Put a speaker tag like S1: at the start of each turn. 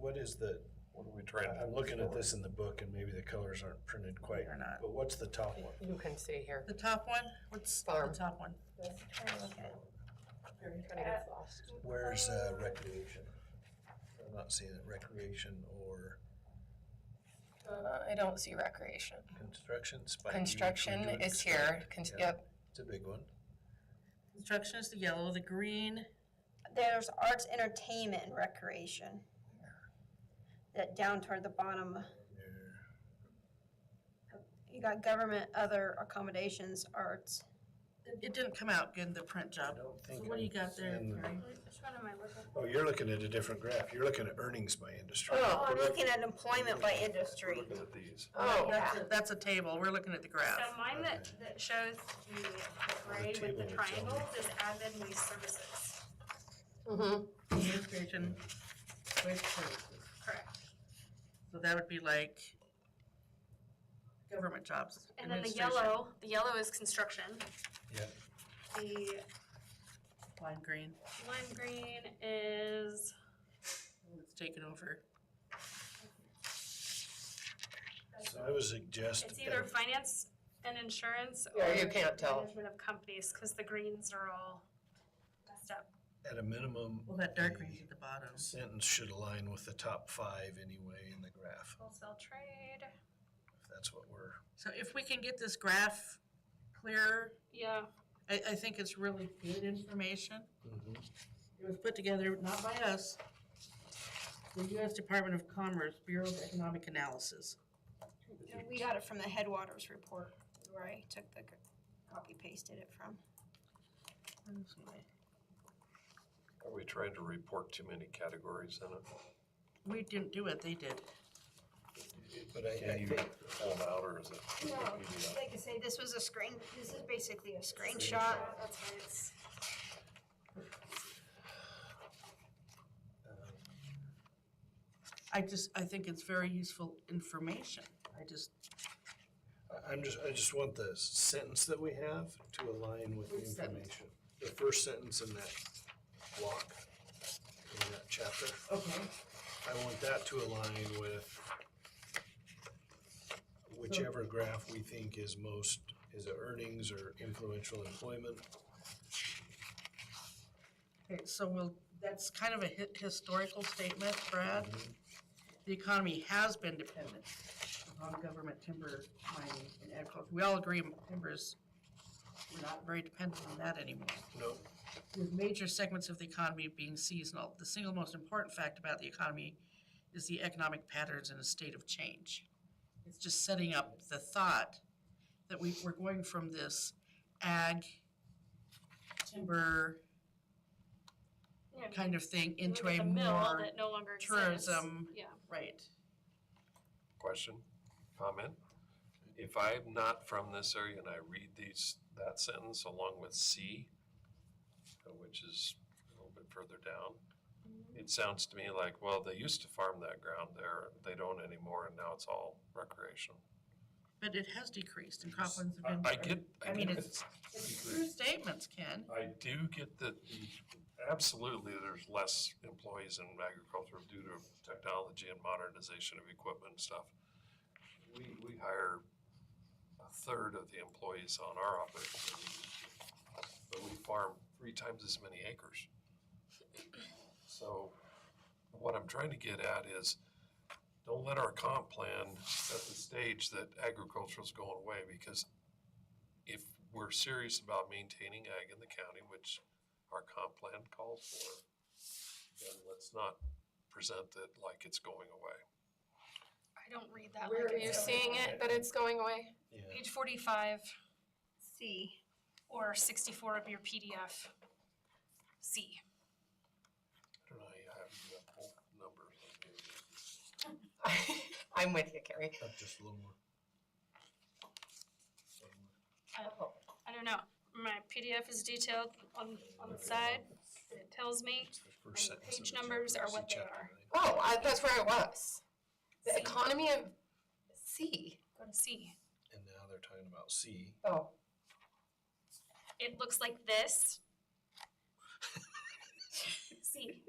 S1: what is the, what are we trying to, I'm looking at this in the book and maybe the colors aren't printed quite.
S2: They're not.
S1: But what's the top one?
S3: You can see here.
S2: The top one, what's the
S3: Farm.
S2: top one?
S4: Let's try and look at it.
S3: You're gonna get lost.
S1: Where's uh, recreation? I'm not seeing it, recreation or
S4: Uh, I don't see recreation.
S1: construction, spike. You usually
S4: Construction
S1: do it
S4: is
S1: spike.
S4: here, Con-
S1: Yeah,
S4: yep.
S1: It's a big one.
S2: Construction is the yellow, the green,
S5: There's arts, entertainment, and recreation. That down toward the bottom,
S1: There.
S5: you got government, other accommodations, arts.
S2: It- it didn't come out good, the print
S1: I
S2: job.
S1: don't
S2: So
S1: think.
S2: what do you
S1: I'm
S2: got there,
S1: seeing the-
S2: Carrie?
S5: Which one am I looking
S1: Oh, you're looking at a different graph. You're looking at earnings by industry.
S5: Oh, I'm
S1: We're look-
S5: looking at employment by industry.
S1: We're looking at these.
S2: Oh,
S5: yeah.
S2: that's, a- that's a table, we're looking at the graph.
S6: So mine that, that shows the gray with
S1: table
S6: the
S1: is on
S6: triangles is admin news services,
S3: Mhm.
S2: Administration, wage services.
S6: correct?
S2: So that would be like government jobs.
S6: And then the
S2: administration.
S6: yellow, the yellow is construction.
S1: Yep.
S6: The
S2: Lime green,
S6: lime green is,
S2: it's taken over.
S1: So I would suggest.
S6: it's either finance and insurance or
S3: Yeah, you can't tell.
S6: management of companies, because the greens are all messed up.
S1: At a minimum.
S2: Well, that dark green's
S1: the
S2: at the bottom.
S1: Sentence should align with the top five anyway in the graph,
S6: Wholesale trade,
S1: if that's what we're.
S2: So if we can get this graph clearer,
S6: yeah,
S2: I, I think it's really good information. It was put together not by us, the U.S. Department of Commerce Bureau of Economic Analysis.
S5: And We got it from the Headwaters report, where I took the, copy pasted it from.
S7: Are we trying to report too many categories in it?
S2: We didn't do it, they did.
S1: But I,
S7: Can
S1: I
S7: you
S1: think,
S7: pull them out or is it?
S5: Like I say, this was a screen, this is basically a screenshot.
S6: that's why it's,
S1: uh,
S2: I just, I think it's very useful information. I just,
S1: I- I'm just, I just want the sentence that we have to align with the
S2: Which sentence?
S1: information. The first sentence in that block, in that chapter,
S2: okay,
S1: I want that to align with whichever graph we think is most, is it earnings or influential employment?
S2: okay, so we'll, that's kind of a hi- historical statement, Brad. The economy has been dependent on government timber mining and agriculture. We all agree timbers, we're not very dependent on that anymore.
S1: No,
S2: with major segments of the economy being seasonal. The single most important fact about the economy is the economic patterns in a state of change. It's just setting up the thought that we, we're going from this ag, timber
S6: you know,
S2: kind of thing
S6: you look
S2: into
S6: at
S2: a
S6: the mill
S2: more,
S6: that no longer exists.
S2: tourism.
S6: Yeah.
S2: right.
S7: Question, comment? If I'm not from this area and I read these, that sentence along with C, uh, which is a little bit further down, it sounds to me like, well, they used to farm that ground there, they don't anymore, and now it's all recreational.
S2: But it has decreased and croplands
S7: I,
S2: have been.
S7: I get,
S2: I
S7: I
S2: mean,
S7: get
S2: it's-
S7: it's
S2: It's true statements, Ken.
S7: I do get that, absolutely, there's less employees in agriculture due to technology and modernization of equipment and stuff. We, we hire a third of the employees on our operation, than we do, but we farm three times as many acres. So what I'm trying to get at is, don't let our comp plan set the stage that agriculture's going away, because if we're serious about maintaining ag in the county, which our comp plan calls for, then let's not present it like it's going away.
S6: I don't read that
S4: Where
S6: like
S4: are
S6: it's
S4: you
S6: so-
S4: seeing it, that it's going away?
S1: yeah,
S6: Page forty-five
S5: C.
S6: or sixty-four of your PDF. C.
S7: I don't know, you have, you have whole numbers.
S3: I'm with you, Carrie.
S1: up just a little more.
S4: Oh.
S6: I don't know. My PDF is detailed on, on the side. It tells me.
S1: It's the first
S6: And the
S1: sentence of
S6: page
S1: the
S6: numbers
S1: chapter.
S6: are
S1: See
S6: what they
S1: chapter
S6: are.
S1: nine.
S4: Oh, I- that's where it was. The
S6: C.
S4: economy of C.
S6: Go to C.
S1: And now they're talking about C.
S4: Oh,
S6: It looks like this. C.